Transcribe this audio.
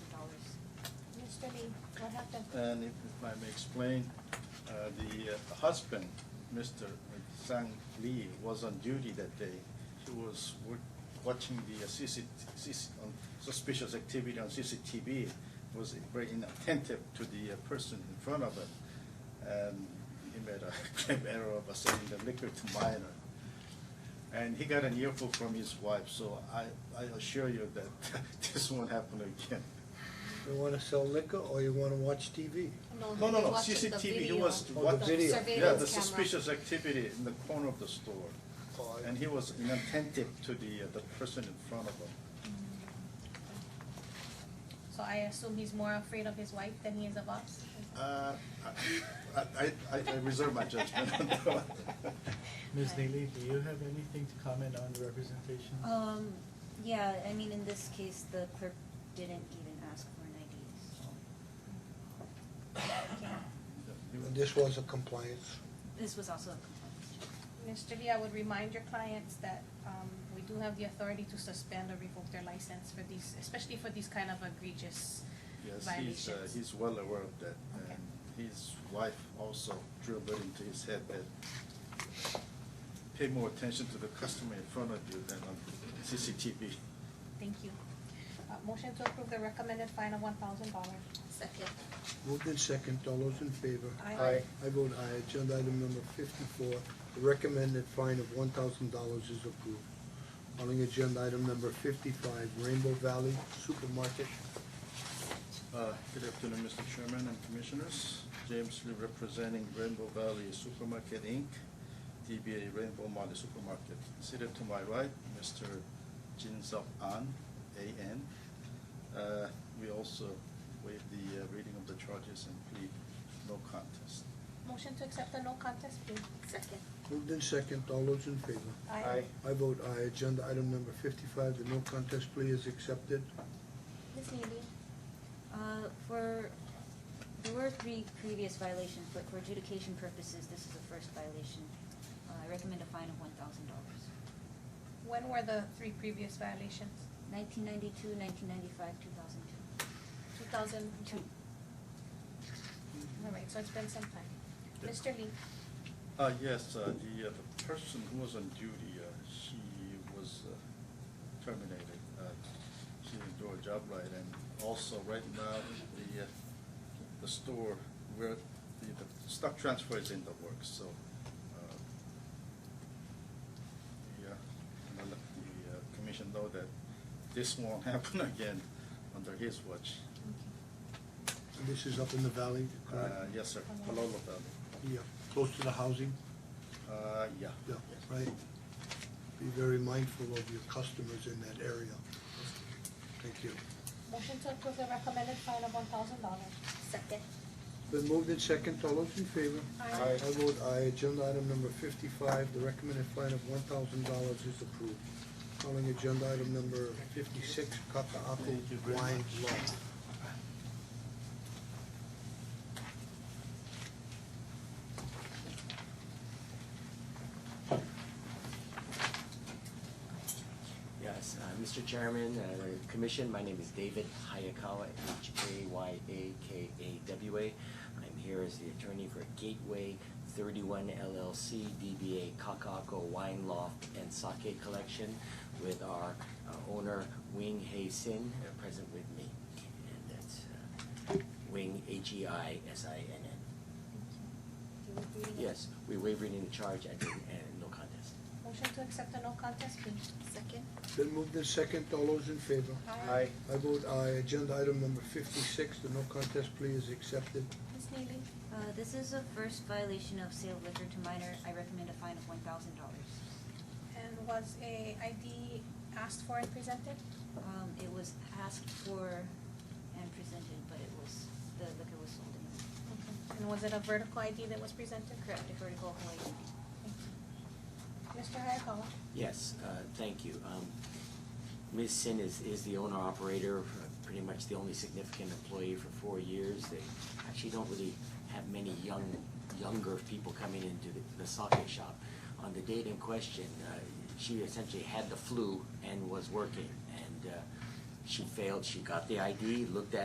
What happened? And if if I may explain, uh, the uh, husband, Mr. Sang Lee, was on duty that day. He was wa- watching the uh, CC CC um, suspicious activity on CCTV, was very inattentive to the uh, person in front of him. And he made a grave error of selling the liquor to minor. And he got an earful from his wife, so I I assure you that this won't happen again. You wanna sell liquor or you wanna watch TV? No, no, he no, watched the CCTV, he video, was Oh, the what- video. Yeah, the surveillance camera. suspicious activity in the corner of the store. Oh, I- And he was inattentive to the, uh, the person in front of him. So I assume he's more afraid of his wife than he is of us? Uh, I, I- I, I reserve my judgment on that one. Ms. Neely, do you have anything to comment on the representation? Um, yeah, I mean, in this case, the clerk didn't even ask for an ID, so. And this was a compliance. This was also a complaint. Mr. Lee, I would remind your clients that um, we do have the authority to suspend or revoke their license for these, especially for these kind of egregious Yes, he's, uh, violations. he's well aware of that, Okay. and his wife also drilled it into his head that pay more attention to the customer in front of you than on CCTV. Thank you. Uh, Motion to approve the recommended fine of one thousand dollars. Second. Moved in second, all those in favor? Aye. Aye. I vote aye, agenda item number fifty-four, the recommended fine of one thousand dollars is approved. Calling agenda item number fifty-five, Rainbow Valley Supermarket. Uh, Good afternoon, Mr. Chairman and Commissioners. James Lee representing Rainbow Valley Supermarket, Inc., DBA Rainbow Valley Supermarket. Seated to my right, Mr. Jin Sup An, A.N. Uh, We also waive the uh, reading of the charges and plead no contest. Motion to accept the no contest plea. Second. Moved in second, all those in favor? Aye. I vote aye, agenda item number fifty-five, the no contest plea is accepted. Ms. Neely? Uh, for, there were three previous violations, but for adjudication purposes, this is the first violation. Uh, I recommend a fine of one thousand dollars. When were the three previous violations? Nineteen ninety-two, nineteen ninety-five, two thousand two. Two thousand Two. All right, so it's been some time. Mr. Lee? Uh, yes, uh, the, uh, the person who was on duty, uh, she was uh, terminated. Uh, She didn't do her job right, and also right now, the, uh, the store where the, the stock transfer is in the works, so, uh, the, uh, I'm gonna let the uh, commission know that this won't happen again under his watch. And This is up in the valley, Uh, correct? yes, sir, Palolo Valley. Yeah, close to the housing, Uh, yeah. yeah, right? Be very mindful of your customers in that area. Thank you. Motion to approve the recommended fine of one thousand dollars. Second. Been moved in second, all those in favor? Aye. I vote aye, agenda item number fifty-five, the recommended fine of one thousand dollars is approved. Calling agenda item number fifty-six, Kaka'ako Thank you very Wine much. Law. Yes, uh, Mr. Chairman, uh, Commission, my name is David Hayakawa, H-A-Y-A-K-A-W-A. I'm here as the attorney for Gateway 31 LLC, DBA Kakako Wine Loft and Sake Collection with our uh, owner Wing Hei Sin, uh, present with me. And that's uh, Wing, E H-E-I-S-I-N-N. You were reading it? Yes, we waive reading the charge and and no contest. Motion to accept the no contest plea. Second. Been moved in second, all those in favor? Aye. I vote aye, agenda item number fifty-six, the no contest plea is accepted. Ms. Neely? Uh, this is the first violation of sale of liquor to minor. I recommend a fine of one thousand dollars. And was a ID asked for and presented? Um, it was asked for and presented, but it was, the liquor was sold in. And was it a vertical ID that was presented? Mm-hmm. Correct, a vertical Hawaii. Thank you. Mr. Hayakawa? Yes, uh, thank you. Um, Ms. Sin is, is the owner operator, uh, pretty much the only significant employee for four years. They actually don't really have many young, younger people coming into the, the sake shop. On the date in question, uh, she essentially had the flu and was working, and, uh, she failed. She got the ID, looked at